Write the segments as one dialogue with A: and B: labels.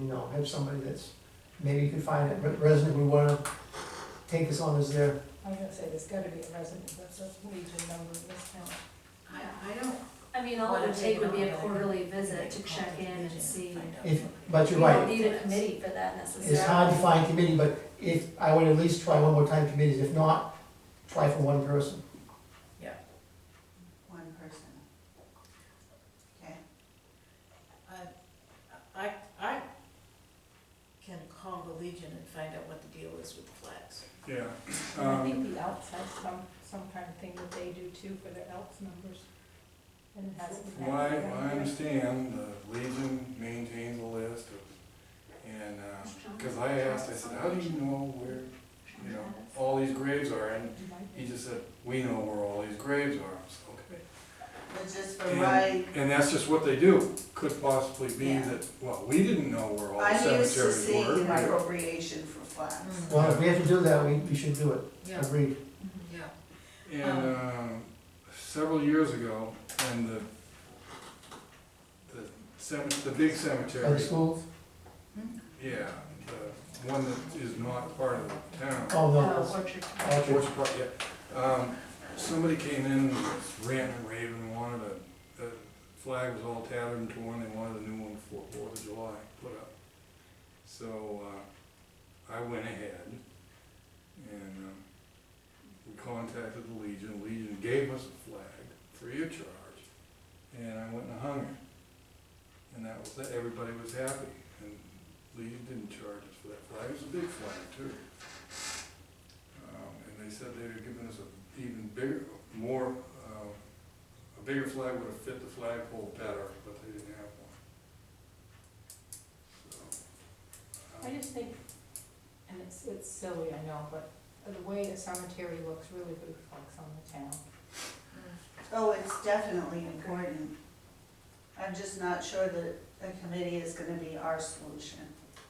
A: you know, have somebody that's, maybe you could find a re- resident we wanna take this on as their,
B: I was gonna say, there's gotta be a resident, that's a legion number in this town.
C: I, I don't.
D: I mean, all it would take would be a quarterly visit to check in and see.
A: if, but
D: We
A: you're
D: don't
A: right.
D: need a committee for that necessarily.
A: It's hard to find committee, but if, I would at least try one more time committees, if not, try for one person.
C: One person. Okay.
E: I, I can call the Legion and find out what the deal is with the flags.
F: Yeah,
B: And I
F: Um,
B: think the Elks have some, some kind of thing that they do too for their Elks numbers. And it hasn't.
F: from what I, what I understand, the Legion maintains a list of, and, uh, cause I asked, I said, how do you know where, you know, all these graves are, and
B: You might
F: he just said, we know where all these graves are, I said, okay.
C: It's just for right,
F: And, and that's just what they do, could possibly be
C: Yeah.
F: that, well, we didn't know where all the
C: I used to
F: cemeteries
C: see an
F: were.
C: appropriation for flags.
A: Well, if we have to do that, we, we should do it, agreed.
D: Mm-hmm.
E: yeah.
F: And, um, several years ago, and the, the cemetery, the big cemetery.
A: By the schools,
F: Yeah, the one that is not part of the town.
A: oh, no,
D: Uh,
A: that's,
D: Orchard.
A: Orchard.
F: George Park, yeah. Um, somebody came in, and was ranting and raving, and wanted a, the flag was all tattered and torn, they wanted a new one for Fourth of July put up. So, uh, I went ahead and, um, we contacted the Legion, Legion gave us a flag, free of charge, and I went and hung it. And that was, it. everybody was happy, and Legion didn't charge us for that flag, it was a big flag too. Um, and they said they had given us a even bigger, more, uh, a bigger flag would have fit the flagpole better, but they didn't have one. So, um,
B: I just think, and it's, it's silly, I know, but the way a cemetery looks really reflects on the town.
C: Oh, it's definitely important. I'm just not sure that a committee is gonna be our solution.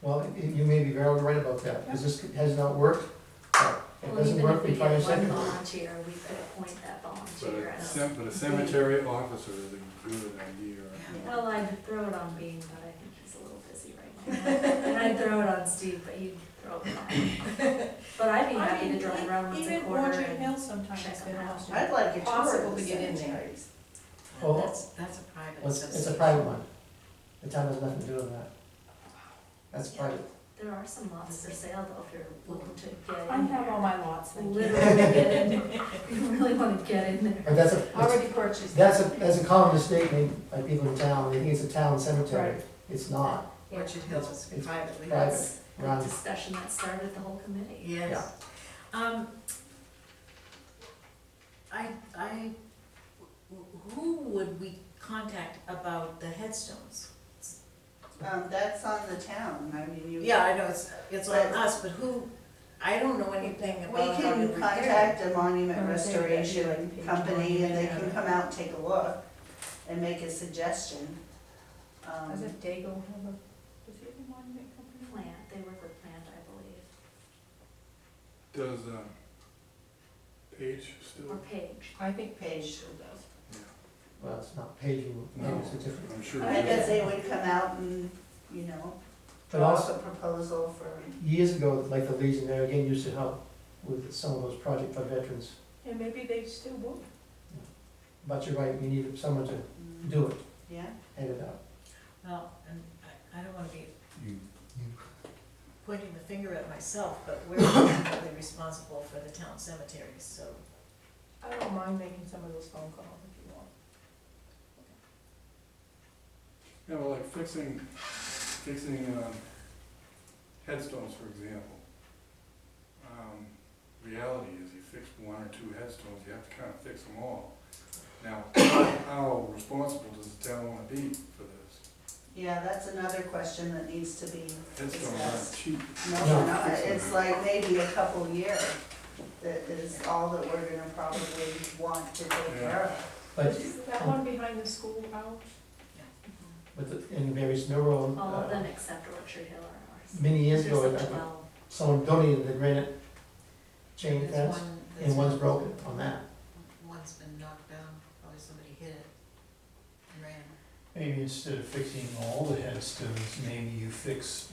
A: well, y- you may be very right about that, because this has not worked. But If it
D: Well,
A: doesn't
D: even if
A: work,
D: we
A: we try a
D: get one
A: second.
D: volunteer, we could appoint that
F: um, But
D: volunteer.
F: a
D: as-
F: cem- but a cemetery officer is a good idea. I think.
D: Well, I'd throw it on Bean, but I think he's a little busy right now. And I'd throw it on Steve, but you'd throw it on. But I'd be happy to drive around once
B: e-
D: a quarter
B: Even Orchard
D: and.
B: Hill sometimes,
D: check
B: they
D: them out.
B: don't.
C: I'd like a tour
B: Possible
C: of the
B: to get in there.
C: cemeteries.
A: Well,
E: That's, that's a private.
A: Well, It's, it's a private one. The town has nothing to do with that. That's private.
D: There are some lots for sale though, if you're looking to get in.
B: I have all my lots, thank you.
D: Literally get in, there. you really wanna get in there.
A: But that's a, that's-
B: Already purchased.
A: that's a, that's a common mistake made by people in town. They think it's a town cemetery.
B: Right.
A: It's not.
E: Orchard Hill is
A: It's
E: privately.
A: private.
D: That's the
A: Right.
D: discussion that started the whole committee.
E: Yes. Um, I, I, wh- who would we contact about the headstones?
C: Um, that's on the town, I mean, you.
E: Yeah, I know, it's, it's on us, but who, I don't know anything
C: We
E: about how to
C: can
E: repair.
C: contact a monument
B: Or they- they like
C: restoration
B: page
C: company and they
B: monument,
C: can
B: yeah.
C: come out and take a look and make a suggestion. Um,
B: Does it Dago have a, does he have a monument company?
D: Plant, they work with plant, I believe,
F: Does, um, Page still,
D: or Page.
B: I think
C: Page.
B: Page still does.
A: Well, it's not paid, you,
F: No.
A: it's a different.
F: I'm sure.
C: I
F: he
C: guess
F: does.
C: they would come out and, you know,
A: But
C: draw up
A: also,
C: a proposal for.
A: years ago, like the Legion there again used to help with some of those projects for veterans.
B: And maybe they still would.
A: But you're right, you need someone to do it,
C: Yeah,
A: head it up.
E: Well, and I, I don't wanna be pointing the finger at myself, but we're ultimately responsible for the town cemeteries, so.
B: I don't mind making some of those phone calls if you want.
F: Yeah, well, like fixing, fixing, um, headstones, for example. Um, reality is you fix one or two headstones, you have to kind of fix them all. Now, how responsible does the town wanna be for this?
C: yeah, that's another question that needs to be,
F: Headstones aren't cheap.
C: no,
A: No.
C: no, no, it's like maybe a couple year that is all that we're gonna probably want to take care of.
A: But,
B: Is That one behind the school out?
A: but the- in various neuro,
D: All of
A: uh,
D: them except Orchard Hill are ours.
A: many years
D: There's
A: ago,
D: like
A: I- I-
D: twelve.
A: someone donated the granite chain
E: There's
A: fence,
E: one that's-
A: and one's broken on that.
E: One's been knocked down, probably somebody hit it and ran.
G: Maybe instead of fixing all the headstones, maybe you fix